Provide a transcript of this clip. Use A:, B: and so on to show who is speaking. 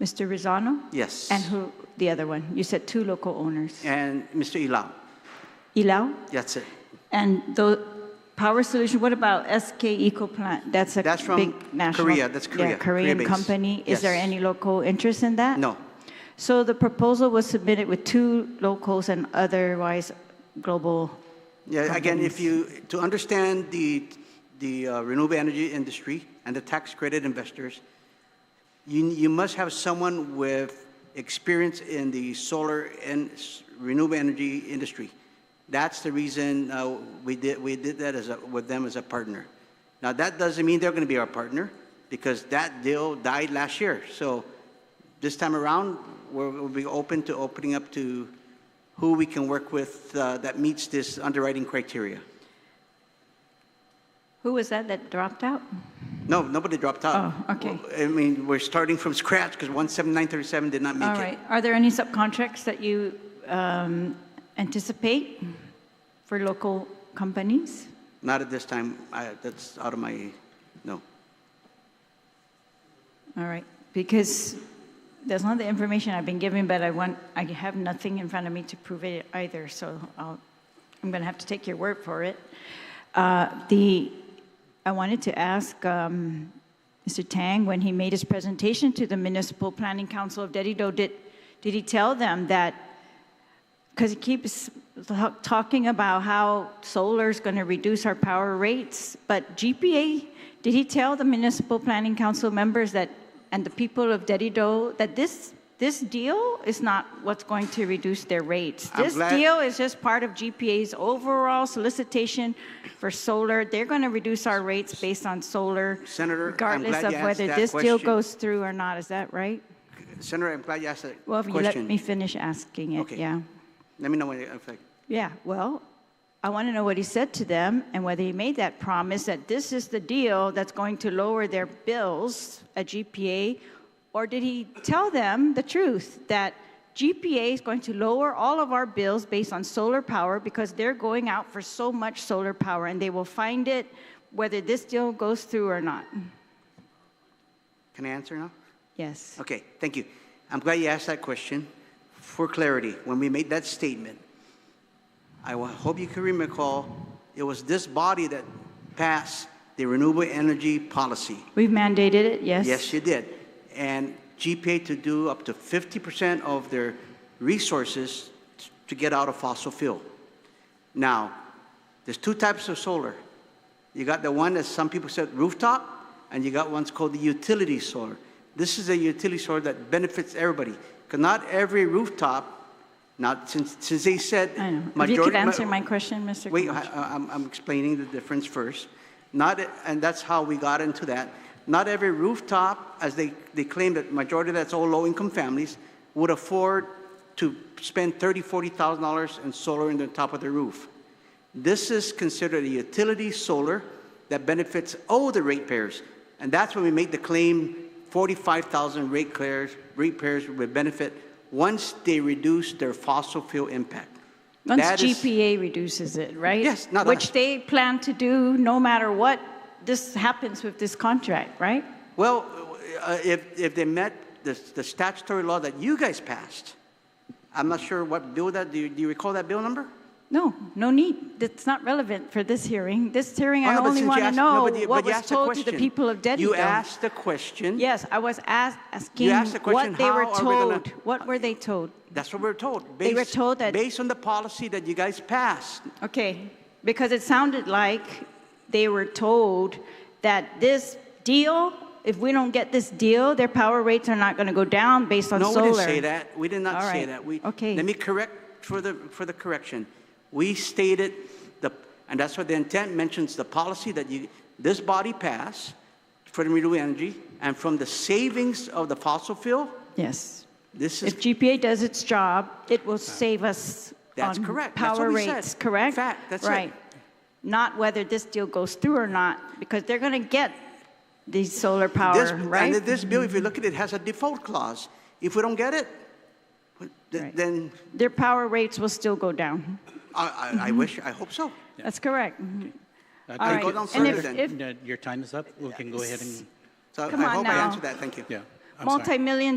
A: Mr. Rizano?
B: Yes.
A: And who, the other one? You said two local owners.
B: And Mr. Ilau.
A: Ilau?
B: That's it.
A: And the Power Solution, what about SK Eco Plant? That's a
B: That's from
A: big national.
B: Korea, that's Korea,
A: Yeah, Korean
B: Korea-based.
A: company. Is there
B: Yes.
A: any local interest in that?
B: No.
A: So the proposal was submitted with two locals and otherwise global.
B: Yeah, again, if
A: companies.
B: you, to understand the, the uh, renewable energy industry and the tax credit investors, you, you must have someone with experience in the solar and s- renewable energy industry. That's the reason uh, we did, we did that as a, with them as a partner. Now, that doesn't mean they're going to be our partner because that deal died last year. So this time around, we're, we'll be open to opening up to who we can work with uh, that meets this underwriting criteria.
A: Who was that that dropped out?
B: No, nobody dropped out.
A: Oh, okay.
B: I mean, we're starting from scratch because 17937 did not make
A: All
B: it.
A: right. Are there any subcontracts that you um, anticipate for local companies?
B: Not at this time. I, that's out of my, no.
A: All right, because that's not the information I've been given, but I want, I have nothing in front of me to prove it either, so I'll, I'm gonna have to take your word for it. Uh, The, I wanted to ask um, Mr. Tang, when he made his presentation to the Municipal Planning Council of Dedido, did, did he tell them that because he keeps talk- talking about how solar's going to reduce our power rates, but GPA, did he tell the municipal planning council members that, and the people of Dedido, that this, this deal is not what's going to reduce their rates?
B: I'm
A: This
B: glad-
A: deal is just part of GPA's overall solicitation for solar. They're going to reduce our rates based on solar.
B: Senator, I'm
A: Regardless
B: glad
A: of
B: you asked
A: whether
B: that
A: this deal
B: question.
A: goes through or not, is that right?
B: Senator, I'm glad you asked that
A: Well, if you let
B: question.
A: me finish asking it,
B: Okay.
A: yeah.
B: Let me know when, if I,
A: Yeah, well, I want to know what he said to them and whether he made that promise that this is the deal that's going to lower their bills at GPA, or did he tell them the truth that GPA is going to lower all of our bills based on solar power because they're going out for so much solar power and they will find it whether this deal goes through or not?
B: can I answer now?
A: Yes.
B: Okay, thank you. I'm glad you asked that question. For clarity, when we made that statement, I wa- hope you can recall, it was this body that passed the renewable energy policy.
A: We've mandated it, yes?
B: Yes, you did. And GPA to do up to 50% of their resources t- to get out of fossil fuel. Now, there's two types of solar. You got the one that some people said rooftop, and you got one's called the utility solar. This is a utility solar that benefits everybody, because not every rooftop, not since, since they said.
A: I know. If you could
B: majority-
A: answer my question, Mr.
B: Wait,
A: Camacho.
B: I- I- I'm, I'm explaining the difference first. Not, and that's how we got into that. Not every rooftop, as they, they claim that majority of that's all low-income families, would afford to spend thirty, forty thousand dollars in solar in the top of their roof. This is considered a utility solar that benefits all the ratepayers. And that's when we make the claim, 45,000 ratepayers, ratepayers would benefit once they reduce their fossil fuel impact.
A: Once
B: That is-
A: GPA reduces it, right?
B: Yes, not
A: Which
B: us.
A: they plan to do no matter what this happens with this contract, right?
B: Well, uh, if, if they met the, the statutory law that you guys passed, I'm not sure what bill that, do you, do you recall that bill number?
A: No, no need. That's not relevant for this hearing. This hearing,
B: Oh,
A: I
B: no, but
A: only
B: since you
A: want to
B: asked- no,
A: know
B: but you-
A: what
B: but you
A: was
B: asked the
A: told to the
B: question.
A: people of Dedico.
B: You asked the question.
A: Yes, I was ask- asking
B: asked the question,
A: what they were
B: how are we gonna-
A: told. What were they told?
B: That's what we're told.
A: They were
B: based-
A: told that-
B: Based on the policy that you guys passed.
A: Okay, because it sounded like they were told that this deal, if we don't get this deal, their power rates are not going to go down based on
B: No,
A: solar.
B: we didn't say that. We did not
A: All
B: say
A: right.
B: that. We,
A: Okay.
B: Let me correct for the, for the correction. We stated the, and that's what the intent mentions, the policy that you, this body passed for the renewable energy, and from the savings of the fossil fuel,
A: Yes.
B: this is
A: If GPA does its job, it will save us
B: That's
A: on
B: correct. That's what
A: power
B: we said.
A: rates, correct?
B: Fact. That's it.
A: Right. Not whether this deal goes through or not, because they're going to get the solar
B: This-
A: power, right? Mm-hmm.
B: And this bill, if you look at it, has a default clause. If we don't get it, th-
A: Right.
B: then
A: Their power rates will still go down.
B: I, I, I
A: Mm-hmm.
B: wish, I hope so.
A: That's correct.
C: I
A: All
C: think
A: right.
B: go down
C: it's-
A: And
B: further
A: if,
B: then.
A: if,
C: No, Your time is up. We can go ahead and,
B: So
A: Come
B: I
A: on
B: hope
A: now.
B: I answered that. Thank you.
C: yeah. I'm sorry.
A: multi-million